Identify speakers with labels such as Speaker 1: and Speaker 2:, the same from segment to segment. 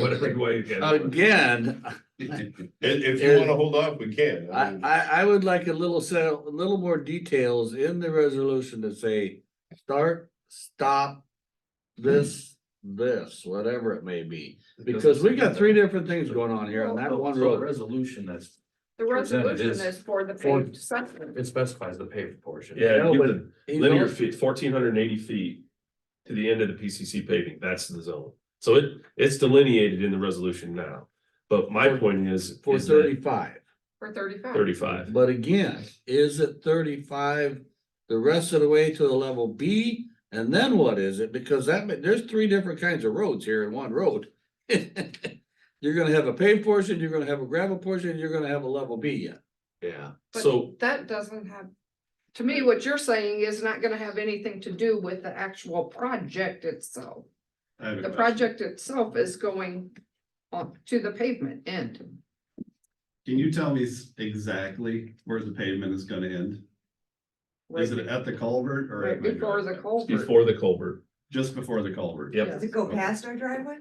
Speaker 1: whatever way you get. it.
Speaker 2: Again,
Speaker 3: If,
Speaker 1: if
Speaker 2: you wanna
Speaker 3: hold off, we can.
Speaker 2: I, I, I would like a little set, a little more details in the resolution to say, start, stop. This, this, whatever it may be, because we got three different things going on here on that
Speaker 4: Well,
Speaker 2: one
Speaker 4: so the
Speaker 2: road.
Speaker 4: Resolution that's,
Speaker 5: The
Speaker 4: Presented is
Speaker 5: resolution is for the
Speaker 4: for-
Speaker 5: paved section.
Speaker 4: it specifies the paved portion.
Speaker 1: Yeah,
Speaker 2: No,
Speaker 1: give
Speaker 2: but
Speaker 1: the linear feet, fourteen hundred and eighty feet to the end of the PCC paving, that's the zone. So it, it's delineated in the resolution now. But my point is.
Speaker 2: For
Speaker 1: is that
Speaker 2: thirty-five,
Speaker 5: For thirty-five.
Speaker 1: Thirty-five.
Speaker 2: but again, is it thirty-five the rest of the way to the level B? And then what is it? Because that, ma- there's three different kinds of roads here in one road. You're gonna have a paved portion, you're gonna have a gravel portion, you're gonna have a level B yet.
Speaker 1: Yeah,
Speaker 5: But
Speaker 1: so
Speaker 5: That doesn't have, to me, what you're saying is not gonna have anything to do with the actual project itself. The project itself is going on to the pavement end.
Speaker 3: Can you tell me s- exactly where the pavement is gonna end? Is it at the culvert or?
Speaker 5: Right
Speaker 3: at my
Speaker 5: before the
Speaker 3: driveway?
Speaker 5: culvert.
Speaker 1: before the culvert,
Speaker 3: Just before the culvert?
Speaker 1: Yep.
Speaker 5: Yes.
Speaker 6: Does it go past our driveway?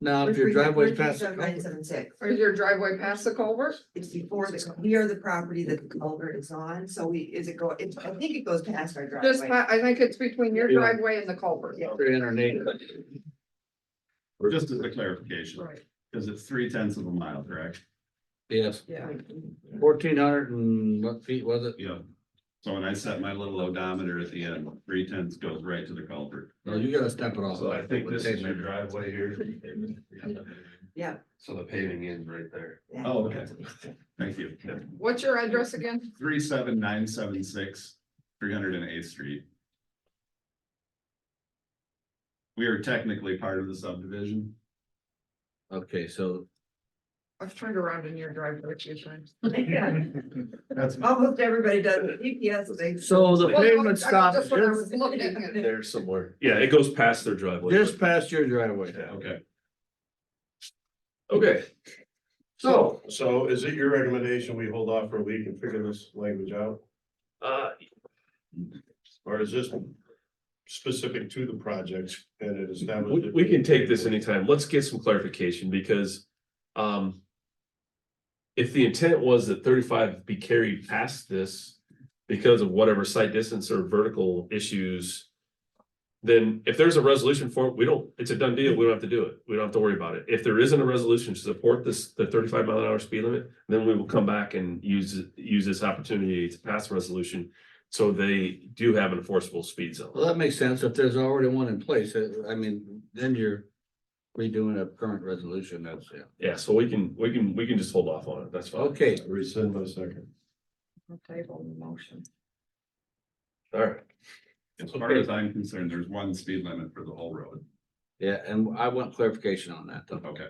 Speaker 2: Now,
Speaker 6: Which
Speaker 2: if Um, your
Speaker 6: we-
Speaker 2: driveway's
Speaker 6: which we
Speaker 2: past the
Speaker 6: said nine
Speaker 2: culvert,
Speaker 6: seven six.
Speaker 5: Or your driveway past the culvert?
Speaker 6: It's before the, we are the property that the culvert is on, so we, is it go, it, I think it goes past our
Speaker 5: Just,
Speaker 6: driveway.
Speaker 5: pa- I think it's between your
Speaker 2: Yeah.
Speaker 5: driveway and the culvert.
Speaker 6: Yeah.
Speaker 2: three hundred and eighty,
Speaker 3: Just as a clarification,
Speaker 5: Right,
Speaker 3: because it's three tenths of a mile, correct?
Speaker 2: yes,
Speaker 5: yeah.
Speaker 2: fourteen hundred and what feet was it?
Speaker 3: Yeah. So when I set my little odometer at the end, three tenths goes right to the culvert.
Speaker 2: No, you gotta step it off.
Speaker 1: So I think this is your
Speaker 2: driveway here.
Speaker 6: Yeah.
Speaker 4: So the paving ends right there.
Speaker 6: Yeah.
Speaker 3: Oh, okay. Thank you.
Speaker 5: What's your address again?
Speaker 3: Three seven nine seven six, three hundred and eighth street. We are technically part of the subdivision.
Speaker 2: Okay, so
Speaker 5: I've turned around in your driveway a few times.
Speaker 6: Yeah.
Speaker 3: That's.
Speaker 6: Almost everybody does it. GPS, they.
Speaker 2: So the-
Speaker 5: Well,
Speaker 2: pavement
Speaker 5: that's
Speaker 2: stops
Speaker 5: just what I
Speaker 2: just-
Speaker 5: was looking at.
Speaker 4: There somewhere.
Speaker 1: yeah, it goes past their driveway.
Speaker 2: just past your driveway.
Speaker 1: Yeah.
Speaker 3: Okay.
Speaker 1: Okay,
Speaker 7: So, so is it your recommendation we hold off for a week and figure this language out?
Speaker 1: uh,
Speaker 7: Or is this specific to the project and it
Speaker 1: we,
Speaker 7: establishes?
Speaker 1: we can take this anytime. Let's get some clarification because, um, if the intent was that thirty-five be carried past this because of whatever site distance or vertical issues, then if there's a resolution for it, we don't, it's a done deal. We don't have to do it. We don't have to worry about it. If there isn't a resolution to support this, the thirty-five mile an hour speed limit, then we will come back and use, use this opportunity to pass a resolution so they do have an enforceable speed zone.
Speaker 2: Well, that makes sense. If there's already one in place, uh, I mean, then you're redoing a current resolution, that's, yeah.
Speaker 1: Yeah, so we can, we can, we can just hold off on it, that's fine.
Speaker 2: Okay,
Speaker 7: Rescind my second.
Speaker 5: Table the motion.
Speaker 1: Alright,
Speaker 3: As far as I'm concerned, there's one speed limit for the whole road.
Speaker 2: yeah, and I want clarification on that though.
Speaker 3: Okay.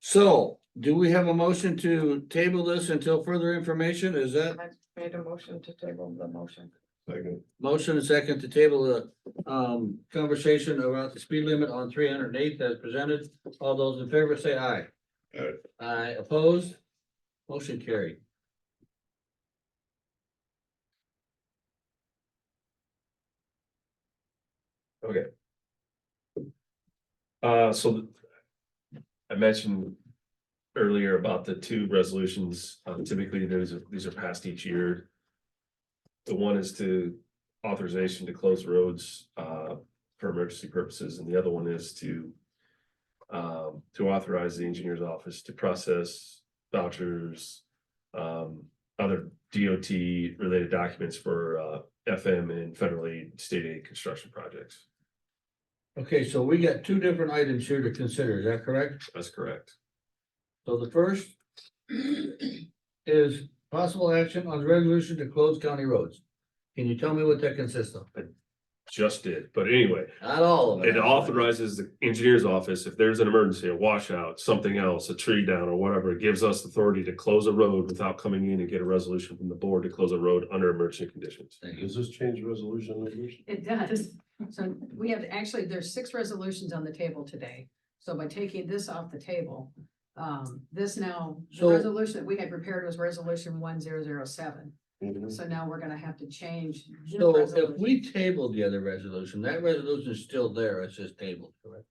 Speaker 2: So, do we have a motion to table this until further information? Is that
Speaker 5: I made a motion to table the motion.
Speaker 7: Second.
Speaker 2: motion and second to table the um conversation about the speed limit on three hundred and eighth as presented? All those in favor say aye.
Speaker 7: Aye.
Speaker 2: Aye, opposed? Motion carried.
Speaker 1: uh, so. th- I mentioned earlier about the two resolutions, um, typically those are, these are passed each year. The one is to authorization to close roads, uh, for emergency purposes, and the other one is to. Um, to authorize the engineer's office to process vouchers, um, other DOT related documents for, uh, FM and federally state aid construction projects.
Speaker 2: Okay, so we got two different items here to consider, is that correct?
Speaker 1: That's correct.
Speaker 2: So the first is possible action on the resolution to close county roads. Can you tell me what that consists of?
Speaker 1: Just did, but anyway,
Speaker 2: Not all of it.
Speaker 1: it authorizes the engineer's office, if there's an emergency, a washout, something else, a tree down or whatever, it gives us authority to close a road without coming in and get a resolution from the board to close a road under emergency conditions.
Speaker 2: Thank you.
Speaker 7: Does this change resolution numbers?
Speaker 8: It does. So we have, actually, there's six resolutions on the table today. So by taking this off the table, um, this now, the
Speaker 2: So-
Speaker 8: resolution that we had prepared was resolution one zero zero seven. So now we're gonna have to change. this
Speaker 2: So if
Speaker 8: resolution.
Speaker 2: we tabled the other resolution, that resolution is still there, it's just tabled, correct?